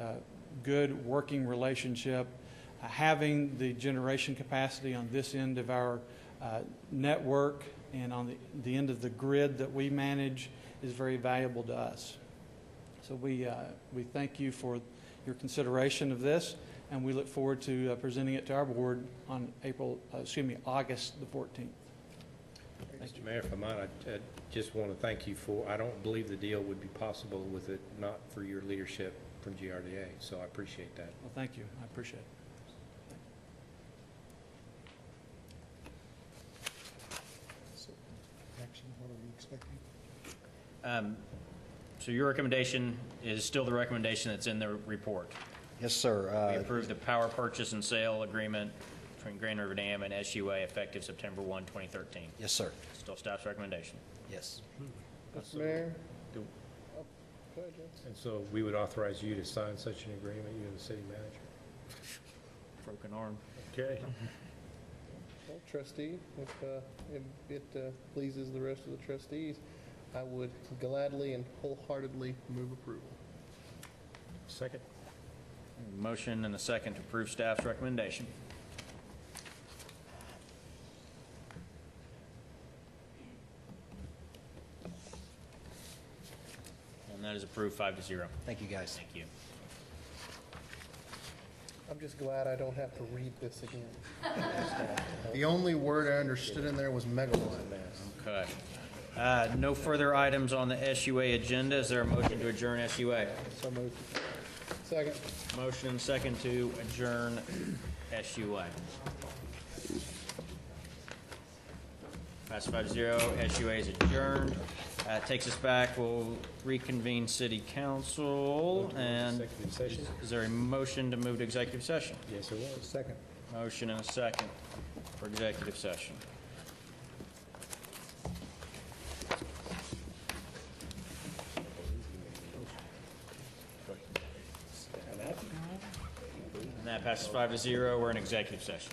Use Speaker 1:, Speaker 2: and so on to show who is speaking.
Speaker 1: uh, good working relationship, uh, having the generation capacity on this end of our uh, network and on the, the end of the grid that we manage is very valuable to us. So we, uh, we thank you for your consideration of this, and we look forward to uh, presenting it to our board on April, uh, excuse me, August the 14th.
Speaker 2: Mr. Mayor, if I might, I I just want to thank you for, I don't believe the deal would be possible with it not for your leadership from GRDA, so I appreciate that.
Speaker 1: Well, thank you. I appreciate it.
Speaker 3: So, Action, what are we expecting?
Speaker 4: Um, So your recommendation is still the recommendation that's in the report.
Speaker 5: Yes, sir.
Speaker 4: We
Speaker 5: Uh,
Speaker 4: approve the power purchase and sale agreement between Grand River Dam and SUA effective September 1, 2013.
Speaker 5: Yes, sir.
Speaker 4: Still staff's recommendation.
Speaker 5: Yes.
Speaker 6: Mr. Mayor, Oh,
Speaker 4: Do-
Speaker 2: And so we would authorize you to sign such an agreement, you and the city manager.
Speaker 4: Broken arm.
Speaker 2: Okay.
Speaker 6: well, trustee, if, uh, if it uh, pleases the rest of the trustees, I would gladly and wholeheartedly move approval.
Speaker 2: Second?
Speaker 4: Motion and a second to approve staff's recommendation. And that is approved five to zero.
Speaker 5: Thank you, guys.
Speaker 4: Thank you.
Speaker 6: I'm just glad I don't have to read this again. The only word I understood in there was megawatt.
Speaker 4: Okay. Uh, No further items on the SUA agenda. Is there a motion to adjourn SUA?
Speaker 6: So moved. Second.
Speaker 4: Motion and second to adjourn SUA. Pass five to zero, SUA is adjourned. Uh, Takes us back, we'll reconvene city council, and
Speaker 2: Executive session?
Speaker 4: is there a motion to move to executive session?
Speaker 2: Yes, it was.
Speaker 3: Second.
Speaker 4: Motion and a second for executive session. And that passes five to zero, we're in executive session.